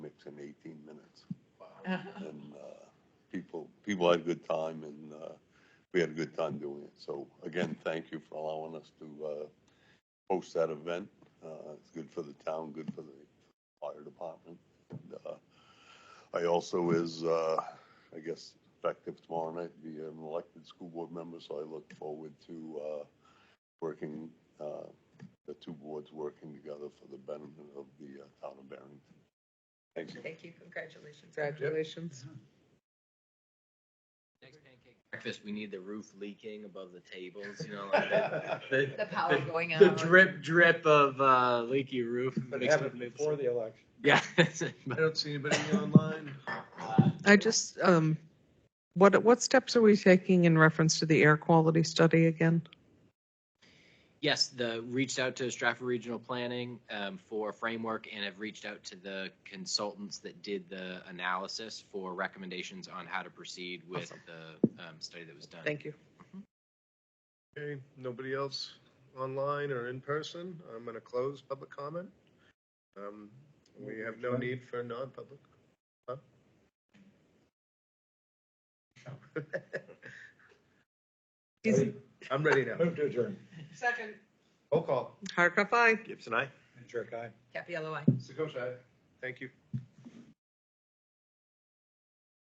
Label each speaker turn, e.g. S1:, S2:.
S1: in 18 minutes. And uh, people, people had a good time, and uh, we had a good time doing it. So again, thank you for allowing us to uh, host that event. Uh, It's good for the town, good for the fire department. And, uh, I also is, uh, I guess, effective tomorrow night, be an elected school board member, so I look forward to uh, working, uh, the two boards working together for the benefit of the uh, town of Barrington. Thank you.
S2: Thank you, congratulations.
S3: Congratulations.
S4: Next pancake breakfast, we need the roof leaking above the tables, you know, like the,
S2: The
S4: the,
S2: power going out.
S4: the drip drip of uh, leaky roof.
S5: But
S4: makes
S5: have
S4: me
S5: it
S4: move.
S5: before the election.
S4: Yeah.
S3: I don't see anybody online.
S6: I just, um, what, what steps are we taking in reference to the air quality study again?
S4: yes, the reached out to Stratford Regional Planning um, for a framework and have reached out to the consultants that did the analysis for recommendations on how to proceed with the um, study that was done.
S6: Thank you.
S3: Okay, nobody else online or in person. I'm going to close public comment. Um, We have no need for non-public. Huh?
S6: Easy.
S3: I'm ready now.
S5: Move to adjourn.
S2: Second.
S3: Roll call.
S6: Hardcock, aye.
S5: Jerk, aye.
S2: Capella, aye.
S3: Sakosha. Thank you.